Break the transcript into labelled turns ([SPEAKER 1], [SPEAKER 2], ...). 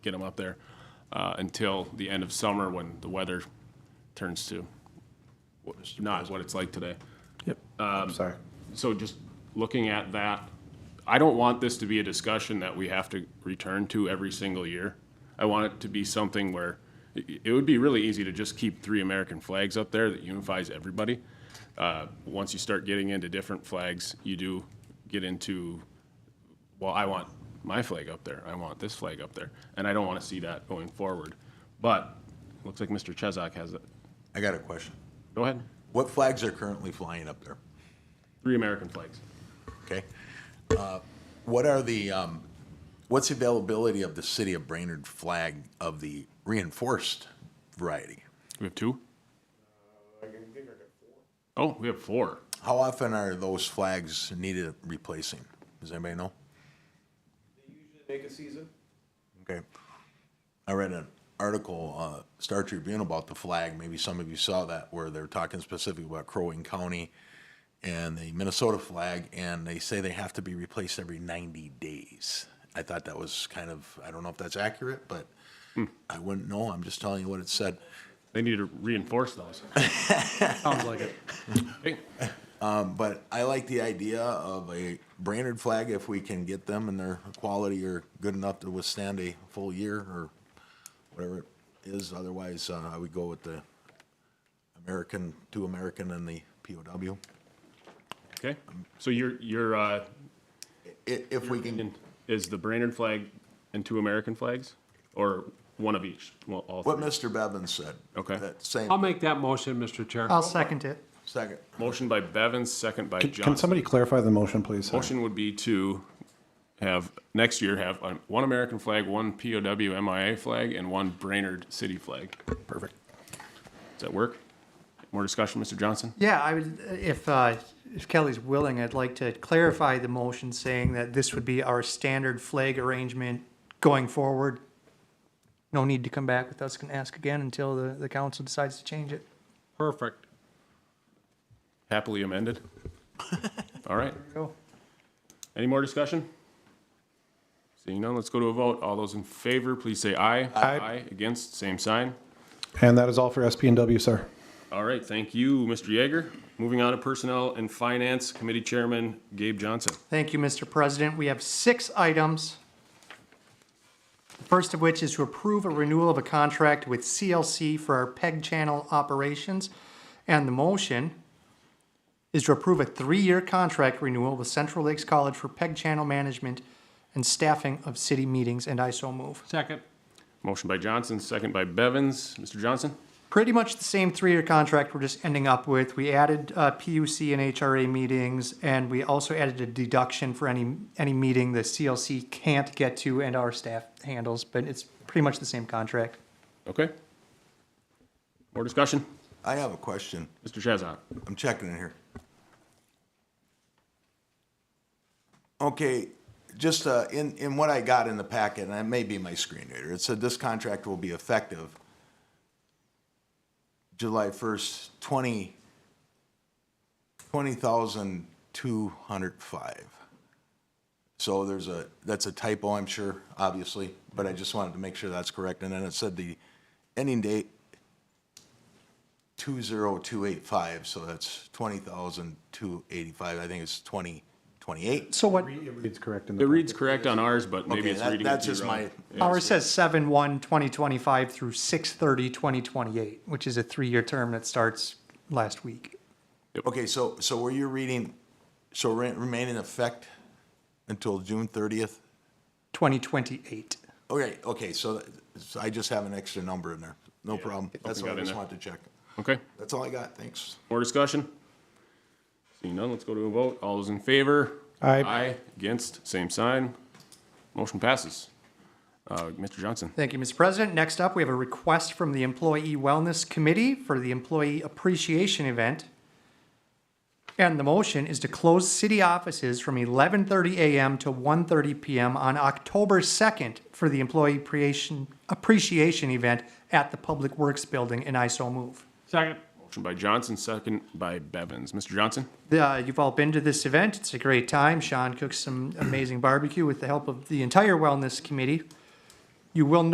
[SPEAKER 1] get them up there uh, until the end of summer when the weather turns to what- not what it's like today. Um,
[SPEAKER 2] Yep. I'm sorry.
[SPEAKER 1] So just looking at that, I don't want this to be a discussion that we have to return to every single year. I want it to be something where i- it would be really easy to just keep three American flags up there that unifies everybody. Uh, Once you start getting into different flags, you do get into, well, I want my flag up there, I want this flag up there, and I don't want to see that going forward. But it looks like Mr. Chesak has it.
[SPEAKER 3] I got a question.
[SPEAKER 1] Go ahead.
[SPEAKER 3] What flags are currently flying up there?
[SPEAKER 1] Three American flags.
[SPEAKER 3] Okay. Uh, What are the, um, what's the availability of the city of Brainerd flag of the reinforced variety?
[SPEAKER 1] We have two?
[SPEAKER 4] Uh,
[SPEAKER 1] Oh, we have four.
[SPEAKER 3] How often are those flags needed replacing? Does anybody know?
[SPEAKER 4] Make a season?
[SPEAKER 3] Okay. I read an article, uh, Star Tribune about the flag, maybe some of you saw that, where they're talking specifically about Crow Wing County and the Minnesota flag, and they say they have to be replaced every ninety days. I thought that was kind of, I don't know if that's accurate, but I wouldn't know, I'm just telling you what it said.
[SPEAKER 1] They need to reinforce those.
[SPEAKER 2] Sounds like it.
[SPEAKER 1] Hey,
[SPEAKER 3] But I like the idea of a Brainerd flag if we can get them and their quality are good enough to withstand a full year or whatever it is. Otherwise, uh, I would go with the American, two American and the POW.
[SPEAKER 1] Okay, so your, your, uh,
[SPEAKER 3] If, if we can,
[SPEAKER 1] is the Brainerd flag and two American flags? Or one of each? Well, all
[SPEAKER 3] what
[SPEAKER 1] three.
[SPEAKER 3] Mr. Bevin said.
[SPEAKER 1] Okay.
[SPEAKER 3] That same,
[SPEAKER 5] I'll make that motion, Mr. Chair.
[SPEAKER 6] I'll second it.
[SPEAKER 3] second,
[SPEAKER 1] Motion by Bevins, second by
[SPEAKER 2] Can
[SPEAKER 1] Johnson.
[SPEAKER 2] somebody clarify the motion, please? Sorry.
[SPEAKER 1] Motion would be to have, next year, have um, one American flag, one POW MIA flag, and one Brainerd city flag.
[SPEAKER 2] Perfect.
[SPEAKER 1] Does that work? More discussion, Mr. Johnson?
[SPEAKER 6] Yeah, I would, if, uh, if Kelly's willing, I'd like to clarify the motion saying that this would be our standard flag arrangement going forward. No need to come back with us and ask again until the, the council decides to change it.
[SPEAKER 5] Perfect.
[SPEAKER 1] Happily amended? All right.
[SPEAKER 6] Go.
[SPEAKER 1] Any more discussion? Seeing none, let's go to a vote. All those in favor, please say aye.
[SPEAKER 2] Aye.
[SPEAKER 1] Against, same sign.
[SPEAKER 2] And that is all for SP and W, sir.
[SPEAKER 1] All right, thank you, Mr. Yeager. Moving on to Personnel and Finance Committee Chairman Gabe Johnson.
[SPEAKER 6] Thank you, Mr. President. We have six items. The first of which is to approve a renewal of a contract with CLC for our PEG channel operations. And the motion is to approve a three-year contract renewal with Central Lakes College for PEG channel management and staffing of city meetings, and I so move.
[SPEAKER 5] Second.
[SPEAKER 1] Motion by Johnson, second by Bevins. Mr. Johnson?
[SPEAKER 6] Pretty much the same three-year contract we're just ending up with. We added uh, PUC and HRA meetings, and we also added a deduction for any, any meeting the CLC can't get to and our staff handles, but it's pretty much the same contract.
[SPEAKER 1] Okay. More discussion?
[SPEAKER 3] I have a question.
[SPEAKER 1] Mr. Chazot?
[SPEAKER 3] I'm checking in here. Okay, just uh, in, in what I got in the packet, and it may be my screen reader, it said this contract will be effective July 1st, 20, 20,205. So there's a, that's a typo, I'm sure, obviously, but I just wanted to make sure that's correct. And then it said the ending date 20285, so that's 20,285, I think it's 2028.
[SPEAKER 6] So what,
[SPEAKER 2] It's correct in
[SPEAKER 1] It
[SPEAKER 2] the.
[SPEAKER 1] reads correct on ours, but maybe
[SPEAKER 3] Okay,
[SPEAKER 1] it's
[SPEAKER 3] that-
[SPEAKER 1] reading
[SPEAKER 3] that's
[SPEAKER 1] it to
[SPEAKER 3] just
[SPEAKER 1] you
[SPEAKER 3] my,
[SPEAKER 1] wrong.
[SPEAKER 6] ours says seven one twenty twenty-five through six thirty twenty twenty-eight, which is a three-year term that starts last week.
[SPEAKER 3] okay, so, so were you reading, so re- remain in effect until June 30th?
[SPEAKER 6] Twenty twenty-eight.
[SPEAKER 3] Okay, okay, so th- so I just have an extra number in there, no problem. That's
[SPEAKER 1] got
[SPEAKER 3] what
[SPEAKER 1] in
[SPEAKER 3] I just
[SPEAKER 1] there.
[SPEAKER 3] wanted to check.
[SPEAKER 1] Okay,
[SPEAKER 3] That's all I got, thanks.
[SPEAKER 1] more discussion? Seeing none, let's go to a vote. All those in favor?
[SPEAKER 2] Aye.
[SPEAKER 1] Aye. Against, same sign. Motion passes. Uh, Mr. Johnson?
[SPEAKER 6] Thank you, Mr. President. Next up, we have a request from the Employee Wellness Committee for the Employee Appreciation Event. And the motion is to close city offices from 11:30 a.m. to 1:30 p.m. on October 2nd for the Employee Appreciation, Appreciation Event at the Public Works Building, and I so move.
[SPEAKER 5] Second.
[SPEAKER 1] Motion by Johnson, second by Bevins. Mr. Johnson?
[SPEAKER 6] Uh, you've all been to this event. It's a great time. Sean cooks some amazing barbecue with the help of the entire Wellness Committee. You will